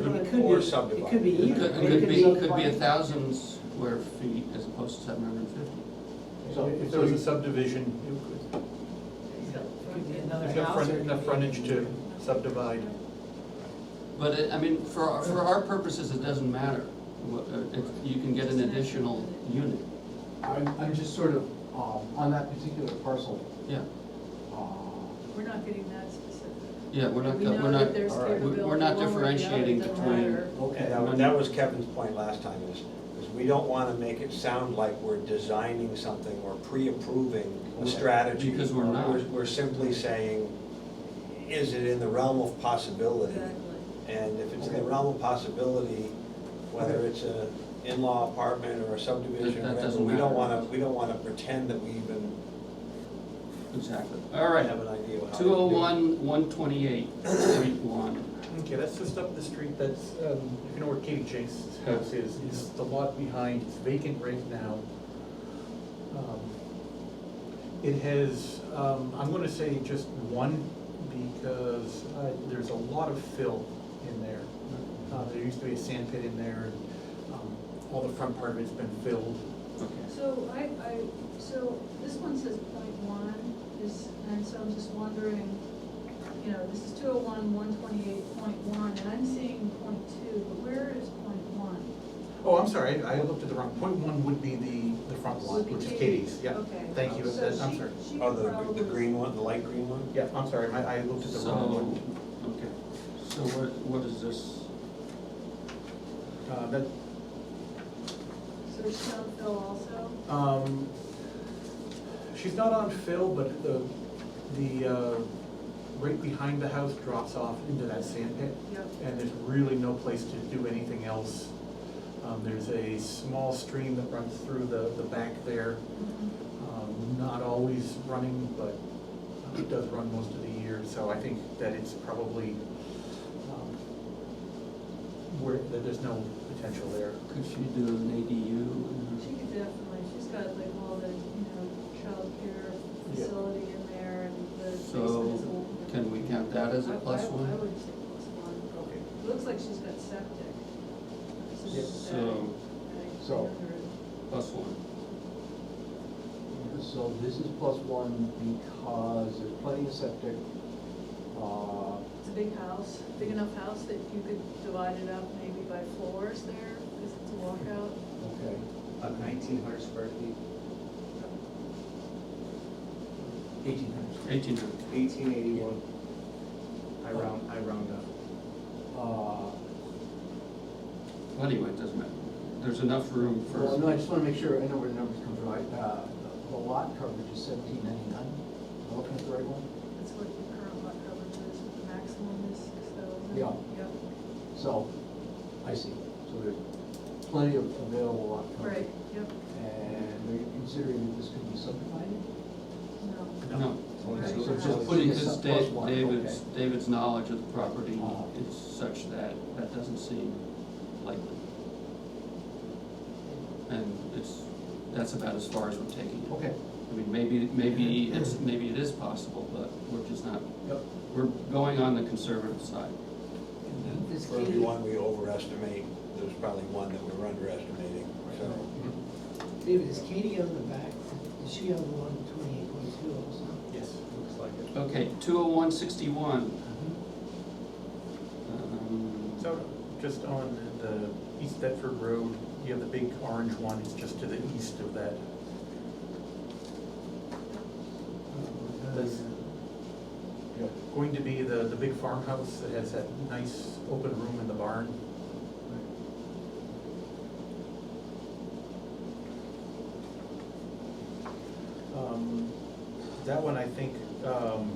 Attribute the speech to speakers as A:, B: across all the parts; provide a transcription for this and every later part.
A: could
B: Or
A: be-
B: subdivide.
A: It could be
C: It
A: either.
C: could, it could be, it could be a thousand square feet as opposed to seven hundred and fifty.
D: So if there was a subdivision, you could,
E: Could be another
D: there's enough
E: house
D: front-
E: or-
D: enough frontage to subdivide.
C: But it, I mean, for, our- for our purposes, it doesn't matter. What- uh, if You can get an additional unit,
F: I'm, I'm just sort of, um, on that particular parcel,
C: yeah.
F: uh,
E: We're not getting that specific.
C: Yeah, we're not,
E: We know
C: we're
E: that
C: not,
E: there's
C: all right, we-
E: capability
C: we're not
E: one way or the other, it
C: differentiating
E: doesn't
C: between,
E: matter.
F: okay.
B: And that was- that was Kevin's point last time, is, is we don't wanna make it sound like we're designing something or pre-approving a strategy.
C: Because we're not.
B: We're, we're simply saying, is it in the realm of possibility? And if it's in the
F: Okay.
B: realm of possibility, whether it's a in-law apartment or a subdivision,
C: That- that
B: whatever,
C: doesn't
B: we don't
C: matter.
B: wanna, we don't wanna pretend that we even
C: exactly. All right,
B: have an idea of how. to do
C: two
B: it.
C: oh one, one twenty-eight, point one.
D: Okay, that's just up the street, that's, um, if you know where Katie Jake's house is, it's the lot behind, it's vacant right now. Um, It has, um, I'm gonna say just one, because uh, there's a lot of fill in there. Uh, There used to be a sand pit in there, and um, all the front part of it's been filled.
C: Okay.
E: So I, I, so this one says point one, is, and so I'm just wondering, you know, this is two oh one, one twenty-eight, point one, and I'm seeing point two, but where is point one?
D: Oh, I'm sorry, I I looked at the wrong, point one would be the, the front lot,
E: Would be
D: which is Katie's,
E: Katie's,
D: yeah.
E: okay.
D: Thank you,
E: So
D: that's- I'm
E: she-
D: sorry.
E: she
B: Oh, the, the
E: probably-
B: green one, the light green one?
D: Yeah, I'm sorry, I, I looked at the wrong one.
C: So, okay, so what, what is this?
D: Uh, That,
E: So there's no fill also?
D: Um, she's not on fill, but the, the, uh, right behind the house drops off into that sand pit.
E: Yep.
D: And there's really no place to do anything else. Um, there's a small stream that runs through the, the back there.
E: Mm-hmm.
D: Um, not always running, but um, it does run most of the year, so I think that it's probably, um, where, that there's no potential there.
C: Could she do an ADU?
E: She could definitely, she's got like all the, you know, childcare
D: Yeah.
E: facility in there and the basement
C: So,
E: is all.
C: can we count that as a
E: I-
C: plus
E: I- I
C: one?
E: would say plus one.
D: Okay.
E: It looks like she's got septic. So
D: Yep.
E: she's got,
C: So,
E: like,
F: So-
E: another-
C: plus one.
F: So this is plus one because there's plenty of septic, uh,
E: It's a big house, big enough house that you could divide it up maybe by floors there, because it's a walkout.
F: okay.
G: About nineteen hundred square feet,
F: Eighteen hundred.
C: Eighteen hundred.
G: eighteen eighty-one. I round, I round up.
F: Uh,
C: Well, anyway, it doesn't matter. There's enough room for.
F: well, no, I just wanna make sure I know where the numbers come from, I, uh, the lot coverage is seventeen ninety-nine, am I looking at the right one?
E: That's what the current lot coverage is, the maximum is six thousand.
F: Yeah.
E: Yep,
F: So, I see, so there's plenty of available lot coverage.
E: right, yep,
F: And are you considering that this could be subdivided?
E: no.
C: No.
E: Okay.
C: So
E: So
C: just
E: it's
C: putting
F: a
C: his,
F: sub- plus
C: Da-
F: one,
C: David's, David's knowledge of the property
F: Uh-huh.
C: is such that that doesn't seem likely. And it's, that's about as far as we're taking it.
F: Okay.
C: I mean, maybe, maybe it's, maybe it is possible, but we're just not,
D: Yep.
C: we're going on the conservative side.
F: This
B: For every one we overestimate, there's probably one that we're underestimating, so.
H: David, is Katie on the back? Is she on the one twenty-eight point two also?
D: Yes, looks like it.
C: Okay, two oh one sixty-one.
F: Mm-hmm.
C: Um,
D: So, just on the East Bedford Road, you have the big orange one, it's just to the east of that. That's going to be the, the big farmhouse that has that nice open room in the barn. Um, That one, I think, um,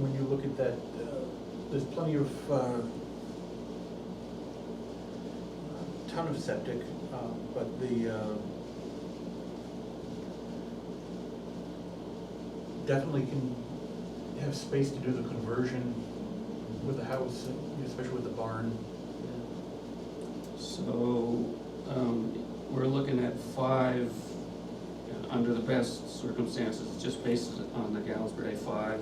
D: when you look at that, uh, there's plenty of, uh, ton of septic, uh, but the, uh, definitely can have space to do the conversion with the house, especially with the barn.
C: So, um, we're looking at five, uh, under the best circumstances, just based on the Galsberg five